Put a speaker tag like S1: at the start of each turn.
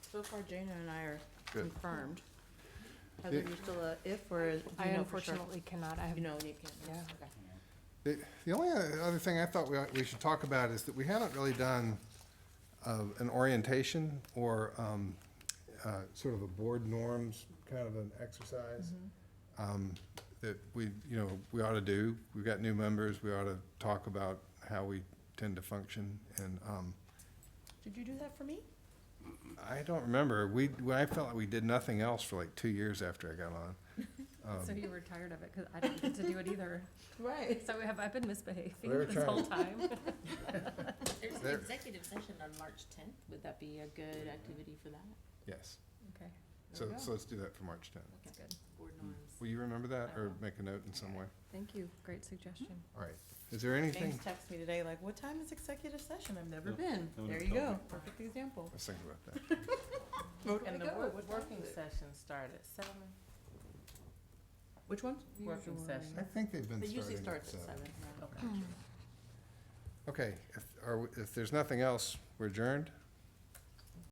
S1: So far, Jana and I are
S2: Good.
S1: confirmed. Heather,
S2: Yeah.
S1: you still a if, or is- do
S3: I
S1: you know for sure?
S3: unfortunately cannot, I have,
S1: You know, and you can't.
S3: Yeah.
S1: Okay.
S2: The the only other thing I thought we, we should talk about is that we haven't really done uh, an orientation or um, uh, sort of a board norms kind of an exercise
S1: Mm-hmm.
S2: um, that we, you know, we ought to do. We've got new members, we ought to talk about how we tend to function. And um,
S1: Did you do that for me?
S2: I don't remember, we, well, I felt like we did nothing else for like two years after I got on. Um,
S4: So you were tired of it, because I didn't get to do it either.
S1: Right.
S4: So have I been
S2: We were
S4: misbehaving this whole time?
S5: There's an
S2: There-
S5: executive session on March tenth, would that be a good activity for that?
S2: Yes,
S4: Okay,
S2: so,
S1: There you
S2: so let's do that for March 10th.
S4: that's good.
S5: Board norms.
S2: Will you remember that or make a note in some way?
S4: Thank you, great suggestion.
S2: All right, is there anything?
S1: James texted me today, like, what time is executive session? I've never
S6: No,
S1: been.
S6: no one
S1: There
S6: ever
S1: you go,
S6: told
S1: perfect example.
S2: Let's think about that.
S7: And the
S4: go.
S7: work-
S4: What time
S7: working
S4: is it?
S7: session started at seven?
S1: Which one?
S7: Working
S4: Usually.
S7: session.
S2: I think they've been
S7: It usually
S2: starting at
S7: starts at
S2: seven.
S7: seven.
S1: Hmm.
S2: Okay, if, are, we- if there's nothing else, we're adjourned?